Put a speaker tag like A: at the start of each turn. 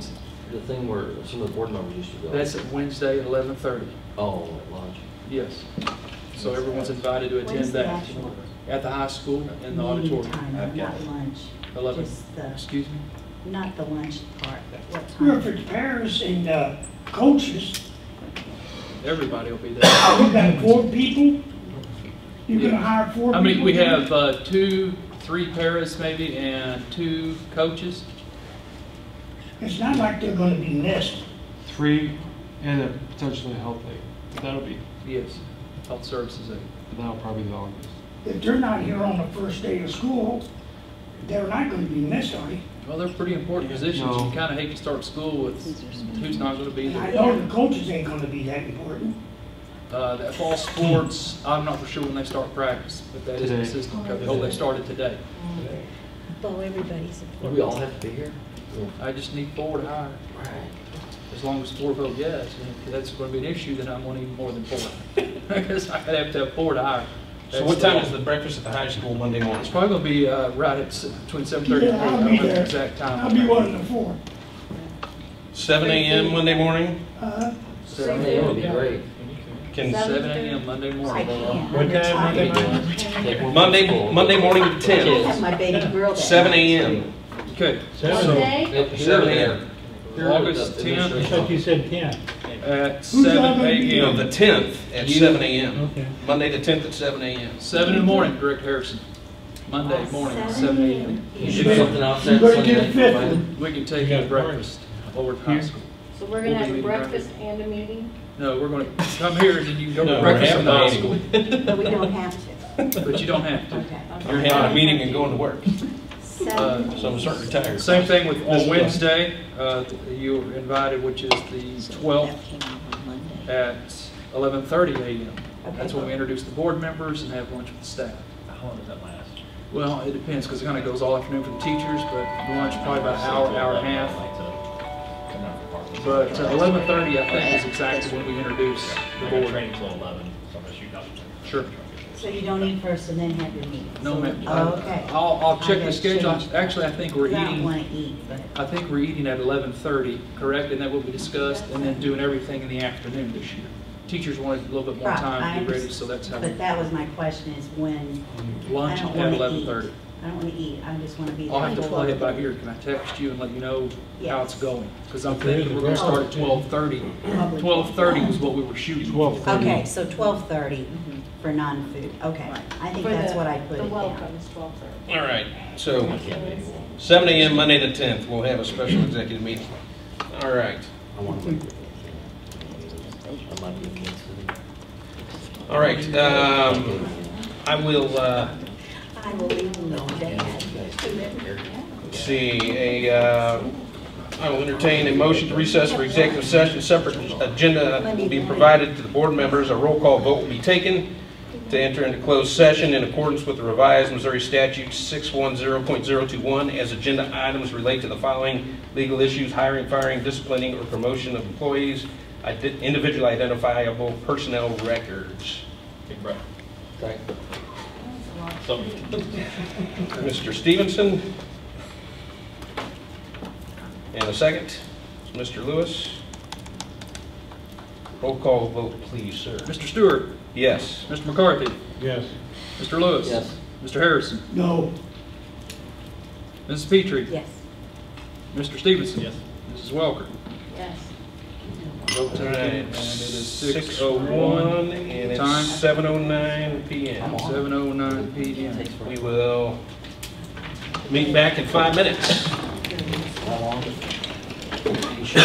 A: the thing where some of the board members used to go?
B: That's at Wednesday at 11:30,
A: Oh, at lunch.
B: yes. So everyone's invited to attend
C: When's the
B: that
C: actual
B: at the high school in the
C: meeting
B: auditorium.
C: time,
D: I've got
C: Not
D: it.
C: lunch.
B: 11.
C: Just the,
B: Excuse me?
C: not the lunch part, but what time?
E: Well, if it's parents and uh, coaches,
B: Everybody will be there.
E: you've got four people, you're gonna hire four people.
B: How many, we have uh, two, three paras maybe, and two coaches?
E: It's not like they're gonna be less.
F: three and a potentially health aide. But That'll be,
B: Yes, health services aide.
F: but that'll probably be the longest.
E: If they're not here on the first day of school, they're not gonna be missed, are they?
B: Well, they're pretty important positions. You
F: No.
B: kind of hate to start school with who's not going to be
E: And I
B: there.
E: know the coaches ain't gonna be that important.
B: Uh, That fall sports, I'm not for sure when they start practice, but that is an
F: Today.
B: assistant coach. Oh, they started today.
C: Well, everybody's
A: Do
C: important.
A: we all have to be here?
B: I just need four to hire. As long as four vote yes, and if that's going to be an issue, then I'm going to need more than four. Because I could have to have four to hire.
D: So what time is
B: That's-
D: the breakfast at the high school Monday
B: It's
D: morning?
B: probably going to be uh, right at s- between 7:30 and 8.
E: Yeah,
B: I
E: I'll
B: don't
E: be
B: know the
E: there.
B: exact time.
E: I'll be one of the four.
D: Seven AM Monday morning?
E: Uh,
A: Seven AM would be great.
D: Can,
C: Seven.
B: 7 a.m. Monday
C: I
B: morning.
C: can't.
D: What
C: I'm
D: time
C: tired.
D: Monday
A: morning? Take one
D: Monday,
A: full.
D: Monday morning at
C: I have
D: ten?
C: my baby girl that
D: Seven
C: night.
D: AM.
B: Okay,
G: Monday?
A: If-
D: Seven AM.
B: August
A: the
B: 10th.
G: I
A: administration-
G: thought you said ten.
B: at
E: Who's that
B: 7
E: gonna be?
D: You know,
B: a.m.
D: the tenth at
B: You-
D: seven AM.
G: Okay.
D: Monday the tenth at seven AM.
B: 7 in the morning, Director Harrison. Monday morning, at 7 a.m.
A: You should do something else
E: You
A: that
E: better get a
A: Sunday.
E: fifth one.
B: We can take
G: You
B: you
G: got
B: to
G: a party.
B: breakfast over at high
F: Here?
B: school.
G: So we're
B: We'll
G: gonna
B: be
G: have a
B: meeting
G: breakfast and a meeting?
B: No, we're going to come here and then you go to
D: No,
B: breakfast
D: we're
B: in the high
D: having a
B: school.
D: meeting.
C: But we don't have to.
B: But you don't have to.
C: Okay.
D: You're having a meeting and going to work,
B: Uh,
C: Seven.
D: so I'm starting to retire.
B: Same thing with, on Wednesday, uh, you were invited, which is the 12th
C: That came out on Monday.
B: at 11:30 a.m. That's
C: Okay.
B: when we introduce the board members and have lunch with the staff.
H: How long does that last?
B: Well, it depends, because it kind of goes all afternoon for the teachers, but the lunch probably about an hour, hour and a half. But uh, 11:30, I think, is exactly when we introduce the
H: I got
B: board.
H: training till eleven, so I'm gonna shoot up.
B: Sure.
C: So you don't eat first and then have your meeting?
B: No, ma'am.
C: Oh, Okay.
B: I'll, I'll
C: I
B: check the
C: gotta
B: schedule.
C: change that.
B: Actually, I think we're
C: I don't
B: eating,
C: want to eat, but.
B: I think we're eating at 11:30, correct? And that will be discussed, and then doing everything in the afternoon this year. Teachers wanted a little bit more
C: Right,
B: time
C: I
B: to get ready,
C: understand.
B: so that's how we
C: But that was my question is when, I
B: lunch
C: don't
B: at
C: want to eat.
B: 11:30.
C: I don't want to eat, I just want to be there.
B: I'll have to
C: until-
B: play it by ear. Can I text you and let you know how it's
C: Yes.
B: going? Because I'm
G: There is
B: thinking
G: a
B: we're gonna start at
G: breakfast.
B: 12:30.
C: Probably.
B: 12:30 was what we were shooting for.
F: 12:30.
C: Okay, so twelve thirty for non-food, okay. I think
G: For
C: that's
G: the-
C: what I put it
G: The welcome
C: down.
G: is twelve thirty.
D: All right, so
G: It's
D: seven AM Monday the tenth, we'll have a special executive meeting. All right,
A: I want to. I might be against it.
D: all right, um, I will, uh,
C: I will leave them all dead.
D: Let's See, a, uh, I will entertain a motion to recess for executive session. Separate agenda will be provided to the board members. A roll call vote will be taken to enter into closed session in accordance with the revised Missouri Statute 610.021 as agenda items relate to the following legal issues: hiring, firing, disciplining, or promotion of employees, ide- individually identifiable personnel records.
H: Big breath.
A: Okay.
H: So,
D: Mr. Stevenson? And a second, Mr. Lewis? Roll call vote, please, sir.
B: Mr. Stewart,
D: Yes.
B: Mr. McCarthy,
G: Yes.
B: Mr. Lewis.
A: Yes.
B: Mr. Harrison,
E: No,
B: Mrs. Petrie,
C: Yes.
B: Mr. Stevenson.
H: yes.
B: Mrs. Welker.
G: Yes.
B: Vote taken, and it is
D: Six
B: 6:01,
D: one and
B: Time?
D: it's seven oh nine PM.
B: 7:09 p.m.
D: We will meet back in five minutes.
A: How long?